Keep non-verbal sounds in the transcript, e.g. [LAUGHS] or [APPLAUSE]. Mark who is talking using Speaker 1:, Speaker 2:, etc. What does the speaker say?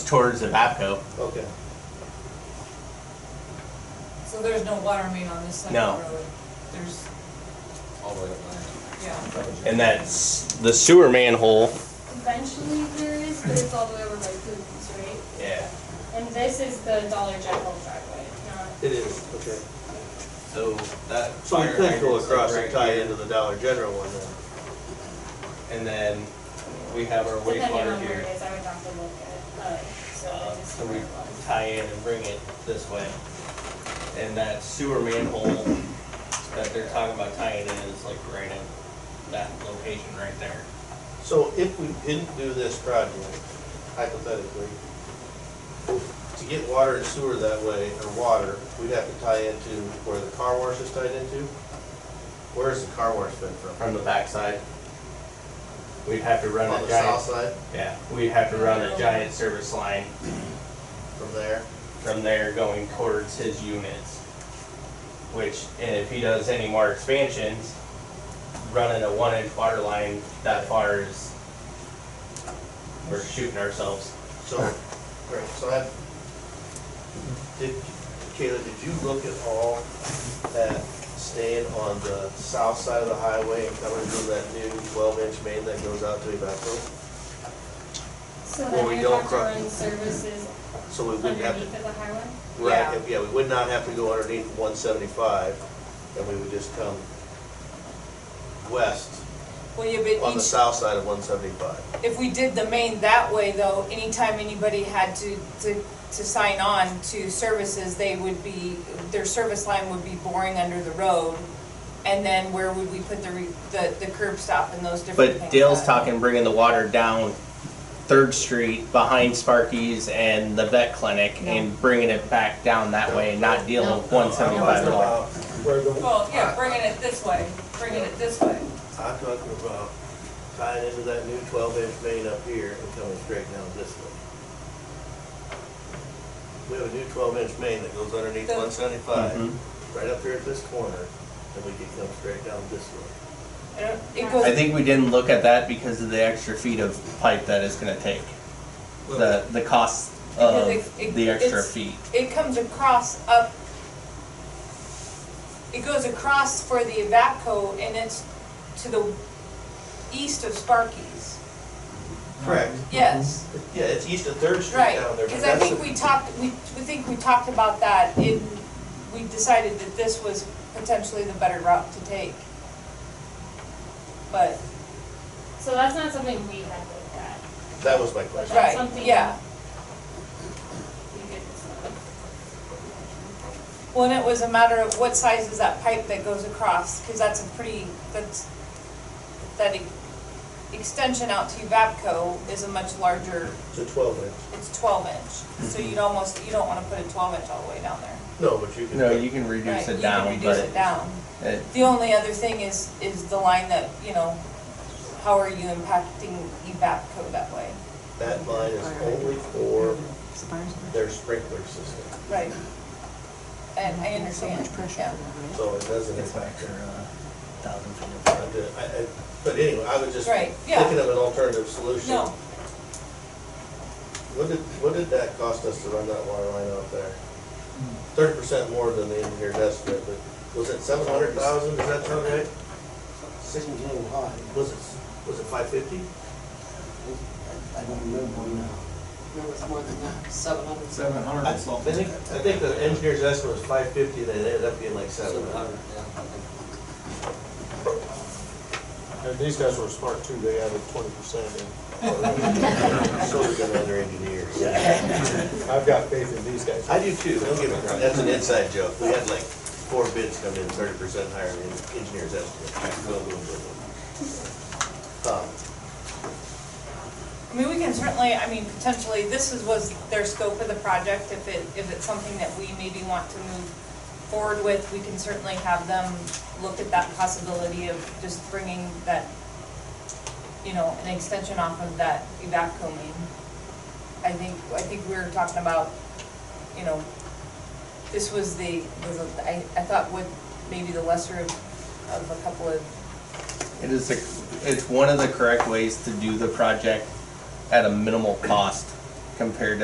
Speaker 1: towards the VAPCO.
Speaker 2: Okay.
Speaker 3: So there's no water main on this side
Speaker 1: No.
Speaker 3: of the road? There's,
Speaker 4: all the way up there.
Speaker 3: yeah.
Speaker 1: And that's the sewer manhole.
Speaker 5: Eventually there is, but it's all the way over by Cookies, right?
Speaker 1: Yeah.
Speaker 5: And this is the Dollar General driveway, not.
Speaker 2: It is, okay.
Speaker 4: So that.
Speaker 2: So we
Speaker 4: fire
Speaker 2: could go
Speaker 4: hydrant's like
Speaker 2: across and
Speaker 4: right
Speaker 2: tie
Speaker 4: here,
Speaker 2: into the Dollar General one then.
Speaker 4: And then we have our
Speaker 5: Depending on
Speaker 4: wastewater
Speaker 5: where
Speaker 4: here.
Speaker 5: it is, I would have to look at, uh, so
Speaker 1: Uh,
Speaker 5: I just.
Speaker 1: So we tie in and bring it this way. And that sewer manhole that they're talking about tying in is like right in that location right there.
Speaker 2: So if we didn't do this project, hypothetically, to get water and sewer that way, or water, we'd have to tie into where the car wash is tied into? Where's the car wash been from?
Speaker 1: From the backside. We'd have to run
Speaker 2: On
Speaker 1: a
Speaker 2: the south
Speaker 1: giant,
Speaker 2: side,
Speaker 1: yeah, we'd have to run a giant service line
Speaker 2: from there?
Speaker 1: from there going towards his units. Which, and if he does any more expansions, running a one inch water line that far is, we're shooting ourselves.
Speaker 2: So, great, so I, did, Kayla, did you look at all at staying on the south side of the highway and coming through that new twelve inch main that goes out to Evaco?
Speaker 5: So
Speaker 2: Well,
Speaker 5: then
Speaker 2: we
Speaker 5: we
Speaker 2: don't
Speaker 5: have to
Speaker 2: cross- [LAUGHS]
Speaker 5: run services
Speaker 2: So we wouldn't have to
Speaker 5: underneath of the highway?
Speaker 2: Right, if- yeah, we would not have to go underneath one seventy-five, and we would just come west
Speaker 3: Well, yeah,
Speaker 2: on
Speaker 3: but
Speaker 2: the
Speaker 3: each,
Speaker 2: south side of one seventy-five.
Speaker 3: if we did the main that way though, anytime anybody had to, to, to sign on to services, they would be, their service line would be boring under the road. And then where would we put the, re- the, the curb stop and those different things?
Speaker 1: But Dale's
Speaker 3: at?
Speaker 1: talking bringing the water down Third Street behind Sparky's and the vet clinic and bringing it back down that way and not dealing with one seventy-five north.
Speaker 2: uh, Where the.
Speaker 3: Well, yeah, bringing it this way, bringing it this way.
Speaker 2: I'm talking about tying into that new twelve-inch main up here and coming straight down this way. We have a new twelve-inch main that goes underneath
Speaker 3: The-
Speaker 2: one
Speaker 1: Mhm.
Speaker 2: seventy-five, right up here at this corner, and we can come straight down this way.
Speaker 3: I don't- It
Speaker 1: I
Speaker 3: goes,
Speaker 1: think we didn't look at that because of the extra feet of pipe that it's gonna take. The, the cost of
Speaker 3: Because it- it-
Speaker 1: the extra
Speaker 3: it's-
Speaker 1: feet.
Speaker 3: it comes across up, it goes across for the Evapco and it's to the east of Sparky's.
Speaker 2: Mm-hmm. Correct.
Speaker 3: Yes,
Speaker 2: Yeah, it's east of Third Street
Speaker 3: right,
Speaker 2: down there. but
Speaker 3: because I
Speaker 2: that's
Speaker 3: think
Speaker 2: the-
Speaker 3: we talked, we, we think we talked about that in, we decided that this was potentially the better route to take. But,
Speaker 5: So that's not something we had looked at.
Speaker 2: That was my question.
Speaker 5: That's
Speaker 3: right,
Speaker 5: something-
Speaker 3: yeah.
Speaker 5: We could decide.
Speaker 3: Well, and it was a matter of what size is that pipe that goes across, because that's a pretty, that's, that e- extension out to Vapco is a much larger,
Speaker 2: It's a twelve inch.
Speaker 3: it's twelve inch. So you'd almost, you don't wanna put a twelve inch all the way down there.
Speaker 2: No, but you can.
Speaker 1: No, you can reduce
Speaker 3: Right,
Speaker 1: it
Speaker 3: You
Speaker 1: down,
Speaker 3: can
Speaker 1: but
Speaker 3: reduce it down.
Speaker 1: it-
Speaker 3: The only other thing is, is the line that, you know, how are you impacting Evapco that way?
Speaker 2: That line is only for
Speaker 6: Spires are-
Speaker 2: their sprinkler system,
Speaker 3: Right. And I
Speaker 6: There's so
Speaker 3: understand,
Speaker 6: much pressure
Speaker 3: yeah.
Speaker 6: on that, right?
Speaker 2: so it doesn't
Speaker 7: It's
Speaker 2: impact.
Speaker 7: factor, uh, thousand feet of
Speaker 2: I did- I- I- But anyway, I was just
Speaker 3: Right, yeah.
Speaker 2: thinking of an alternative solution.
Speaker 3: No,
Speaker 2: What did, what did that cost us to run that water line out there? Thirty percent more than the engineer's estimate, but was it seven hundred thousand, does that sound right?
Speaker 7: Six was a little high,
Speaker 2: Was it, was it five fifty?
Speaker 7: I- I don't remember now.
Speaker 6: There was more than that, seven hundred.
Speaker 8: Seven hundred
Speaker 2: I
Speaker 8: and something.
Speaker 2: think, I think the engineer's estimate was five fifty, then it ended up being like seven hundred.
Speaker 9: And these guys were smart too, they added twenty percent in.
Speaker 2: So we're gonna under engineer.
Speaker 9: I've got faith in these guys.
Speaker 2: I do too, don't give a crap, that's an inside joke, we had like four bids come in thirty percent higher than the engineer's estimate. Boom, boom, boom, boom. Um,
Speaker 3: I mean, we can certainly, I mean, potentially, this is, was their scope of the project. If it, if it's something that we maybe want to move forward with, we can certainly have them look at that possibility of just bringing that, you know, an extension off of that evapco main. I think, I think we were talking about, you know, this was the, was, a- I, I thought would maybe the lesser of, of a couple of
Speaker 1: It is, the- it's one of the correct ways to do the project at a minimal cost compared to